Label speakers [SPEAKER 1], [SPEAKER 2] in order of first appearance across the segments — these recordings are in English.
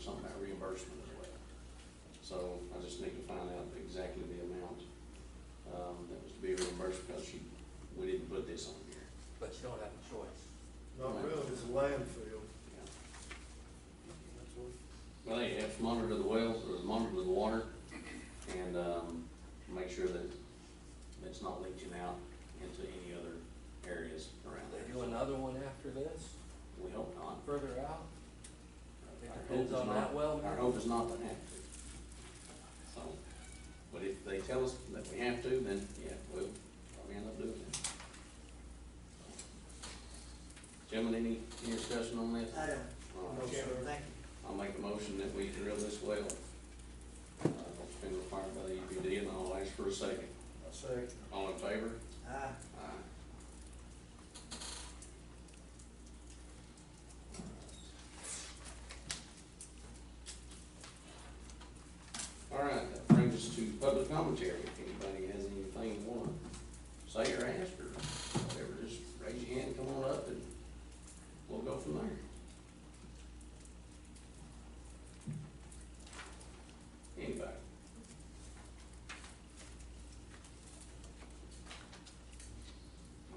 [SPEAKER 1] some of that reimbursement as well. So I just need to find out exactly the amount, um, that was to be reimbursed because she, we didn't put this on here.
[SPEAKER 2] but you don't have a choice.
[SPEAKER 3] Not really, it's a landfill.
[SPEAKER 1] Yeah. Well, yeah, have to monitor the wells, or monitor the water, and, um, make sure that it's not leaching out into any other areas around
[SPEAKER 2] They
[SPEAKER 1] there.
[SPEAKER 2] do another one after this,
[SPEAKER 1] We hope not.
[SPEAKER 2] further out, It
[SPEAKER 1] Our hope
[SPEAKER 2] depends
[SPEAKER 1] is
[SPEAKER 2] on
[SPEAKER 1] not-
[SPEAKER 2] that well.
[SPEAKER 1] Our hope is not to have to. So, but if they tell us that we have to, then, yeah, we'll probably end up doing it. Gentlemen, any, any discussion on this?
[SPEAKER 4] I don't,
[SPEAKER 1] All right.
[SPEAKER 3] No, sir.
[SPEAKER 4] thank you.
[SPEAKER 1] I'll make a motion that we drill this well. Uh, It's been required by the EPD, and I'll ask for a second.
[SPEAKER 3] I say,
[SPEAKER 1] All in favor?
[SPEAKER 4] Ah,
[SPEAKER 1] Aye. All right, that brings us to public commentary. If anybody has anything you wanna say or ask or whatever, just raise your hand, come on up, and we'll go from there. Anybody?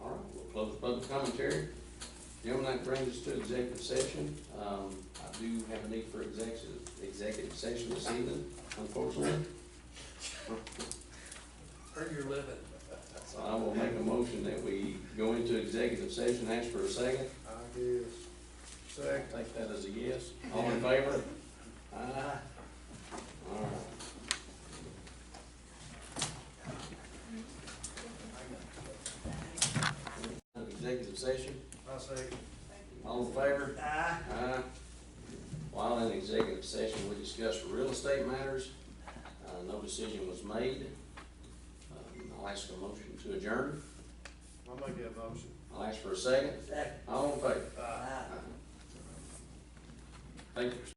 [SPEAKER 1] All right, we'll close public commentary. Gentlemen, that brings us to executive session. Um, I do have a need for executive, executive session this evening, unfortunately.
[SPEAKER 2] earn your living.
[SPEAKER 1] So I will make a motion that we go into executive session, ask for a second.
[SPEAKER 3] I guess, second.
[SPEAKER 1] Take that as a yes. All in favor? Aye. All right. Executive session,
[SPEAKER 3] I say,
[SPEAKER 1] all in favor?
[SPEAKER 4] ah.
[SPEAKER 1] Aye. Uh, While in executive session, we discussed real estate matters. Uh, no decision was made. Um, I'll ask a motion to adjourn.
[SPEAKER 3] I'll make that motion.
[SPEAKER 1] I'll ask for a second.
[SPEAKER 4] Second.
[SPEAKER 1] All in favor?
[SPEAKER 4] Ah.
[SPEAKER 1] Thank you.